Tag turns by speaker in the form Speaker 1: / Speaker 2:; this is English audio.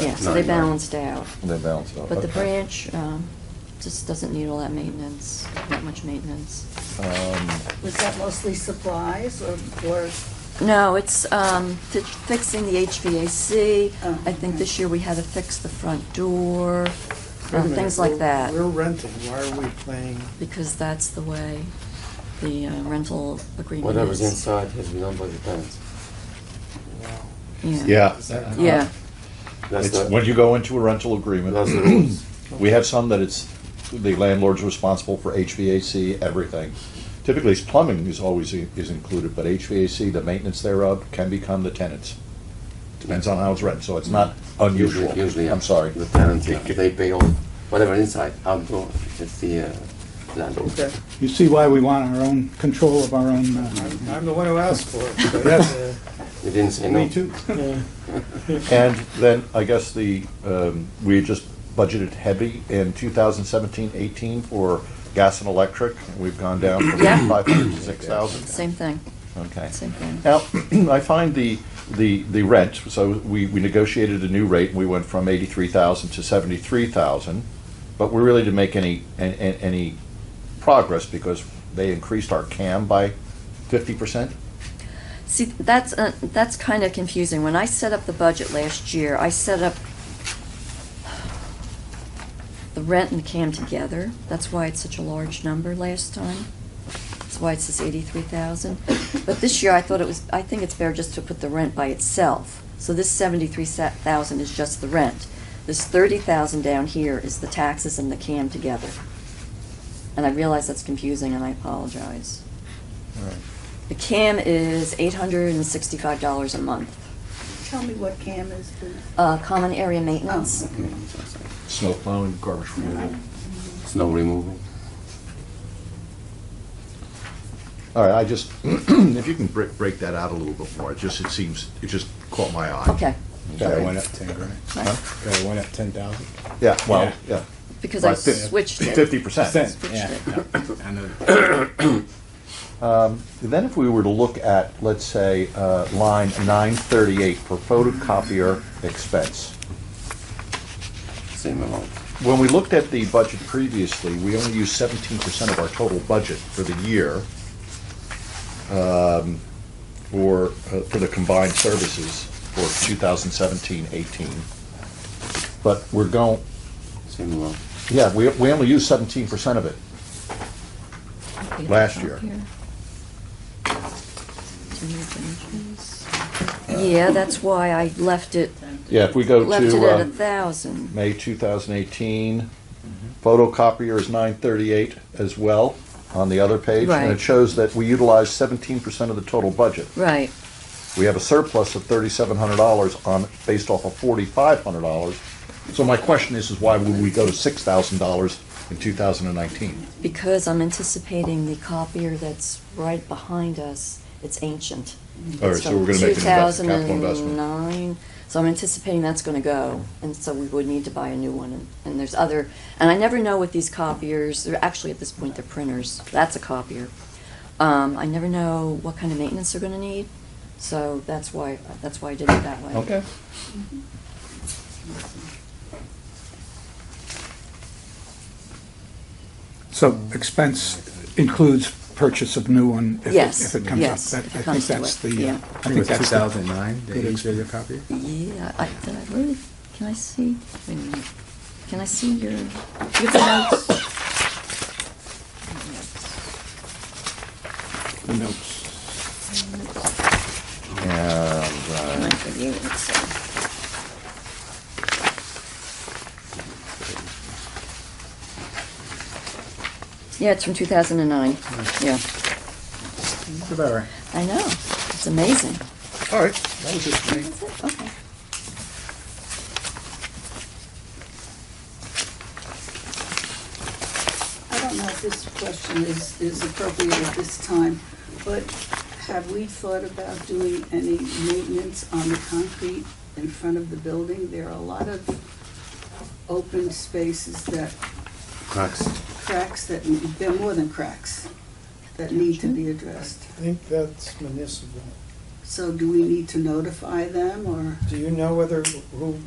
Speaker 1: Yeah, so they balanced out.
Speaker 2: They balanced out,
Speaker 1: But the
Speaker 2: okay.
Speaker 1: branch um, just doesn't need all that maintenance, not much maintenance.
Speaker 2: Um,
Speaker 3: Was that mostly supplies or, or,
Speaker 1: No, it's um, fi- fixing the HVAC.
Speaker 3: Oh,
Speaker 1: I think
Speaker 3: okay.
Speaker 1: this year we had to fix the front door, uh,
Speaker 4: Wait a minute,
Speaker 1: things like
Speaker 4: we're-
Speaker 1: that.
Speaker 4: We're renting, why are we paying?
Speaker 1: Because that's the way the uh, rental agreement is.
Speaker 5: Whatever's inside has been done by the tenants.
Speaker 4: wow.
Speaker 1: Yeah.
Speaker 6: Yeah,
Speaker 1: Yeah,
Speaker 2: Uh-huh.
Speaker 5: That's
Speaker 2: It's,
Speaker 5: the,
Speaker 2: when you go into a rental
Speaker 5: that's the
Speaker 2: agreement,
Speaker 5: rules.
Speaker 2: we have some that it's, the landlord's responsible for HVAC, everything. Typically, it's plumbing is always, i- is included, but HVAC, the maintenance thereof, can become the tenant's. Depends on how it's rented, so it's not unusual.
Speaker 5: Usually- Usually,
Speaker 2: I'm sorry.
Speaker 5: The tenants, uh, they pay all, whatever inside, outdoor, it's the uh, landlord.
Speaker 4: Okay,
Speaker 6: You see why we want our own control of our own, uh,
Speaker 4: I'm I'm the one who asked for it. but,
Speaker 6: Yes.
Speaker 5: They didn't say no.
Speaker 4: uh, yeah.
Speaker 2: And then, I guess the, um, we just budgeted heavy in 2017-18 for gas and electric, and we've gone down from
Speaker 1: Yeah.
Speaker 2: 500 to 6,000.
Speaker 1: same thing,
Speaker 2: Okay.
Speaker 1: same thing.
Speaker 2: Now, I find the, the, the rent, so we, we negotiated a new rate, and we went from eighty-three thousand to seventy-three thousand, but we really didn't make any, an- an- any progress because they increased our CAM by fifty percent?
Speaker 1: See, that's, uh, that's kind of confusing. When I set up the budget last year, I set up the rent and the CAM together. That's why it's such a large number last time. That's why it says eighty-three thousand. But this year, I thought it was, I think it's fair just to put the rent by itself. So this seventy-three thousand is just the rent. This thirty thousand down here is the taxes and the CAM together. And I realize that's confusing, and I apologize. The CAM is eight hundred and sixty-five dollars a month.
Speaker 3: tell me what CAM is, please.
Speaker 1: Uh, common area maintenance,
Speaker 5: Okay, I'm so sorry.
Speaker 2: Snow plowing, garbage removal.
Speaker 5: Snow removal.
Speaker 2: All right, I just, if you can break, break that out a little bit more, it just, it seems, it just caught my eye.
Speaker 1: okay.
Speaker 2: Okay, why
Speaker 7: went
Speaker 2: not?
Speaker 7: up ten grand.
Speaker 1: Right.
Speaker 7: Guy went up ten thousand.
Speaker 2: Yeah, well, yeah.
Speaker 1: Because I
Speaker 2: Right, fif-
Speaker 1: switched it.
Speaker 2: Fifty percent.
Speaker 7: Yeah. I know.
Speaker 2: Then if we were to look at, let's say, uh, line 938 for photocopier expense.
Speaker 5: Same amount.
Speaker 2: When we looked at the budget previously, we only used 17% of our total budget for the year um, for, uh, for the combined services for 2017-18. But we're going,
Speaker 5: Same amount.
Speaker 2: yeah, we, we only used 17% of it. last year.
Speaker 1: Yeah, that's why I left it,
Speaker 2: Yeah, if we go to.
Speaker 1: left it at
Speaker 2: uh,
Speaker 1: a thousand.
Speaker 2: May 2018. Photocopier is 938 as well on the other page. And
Speaker 1: Right.
Speaker 2: it shows that we utilize 17% of the total budget.
Speaker 1: Right,
Speaker 2: We have a surplus of $3,700 on, based off of $4,500. So my question is, is why would we go to $6,000 in 2019?
Speaker 1: because I'm anticipating the copier that's right behind us, it's ancient.
Speaker 2: All right,
Speaker 1: It's
Speaker 2: so
Speaker 1: from
Speaker 2: we're going to make an investment, capital investment.
Speaker 1: 2009, so I'm anticipating that's gonna go, and so we would need to buy a new one, and- and there's other, and I never know with these copiers, they're actually at this point, they're printers, that's a copier. Um, I never know what kind of maintenance they're gonna need, so that's why, that's why I did it that way.
Speaker 2: Okay.
Speaker 6: so expense includes purchase of new one if it-
Speaker 1: Yes,
Speaker 6: if it comes up.
Speaker 1: yes,
Speaker 6: That-
Speaker 1: if it comes to
Speaker 6: I think that's
Speaker 1: it,
Speaker 6: the,
Speaker 1: yeah.
Speaker 6: uh,
Speaker 7: I
Speaker 6: I
Speaker 7: think it
Speaker 6: think
Speaker 7: was two
Speaker 6: that's the
Speaker 7: thousand nine, the
Speaker 6: Good
Speaker 7: HVAC copy.
Speaker 1: Yeah, I, did I really, can I see, wait a minute, can I see your, do you have the notes?
Speaker 6: the notes.
Speaker 2: And, uh,
Speaker 1: Mine for you, let's see. Yeah, it's from 2009, yeah.
Speaker 7: It's about right.
Speaker 1: I know, it's amazing.
Speaker 2: All right, that was it for me.
Speaker 1: That's it, okay.
Speaker 3: I don't know if this question is, is appropriate at this time, but have we thought about doing any maintenance on the concrete in front of the building? There are a lot of open spaces that,
Speaker 5: Cracks.
Speaker 3: cracks that, there are more than cracks, that need to be addressed.
Speaker 4: I think that's municipal.
Speaker 3: So do we need to notify them, or
Speaker 4: Do you know whether, who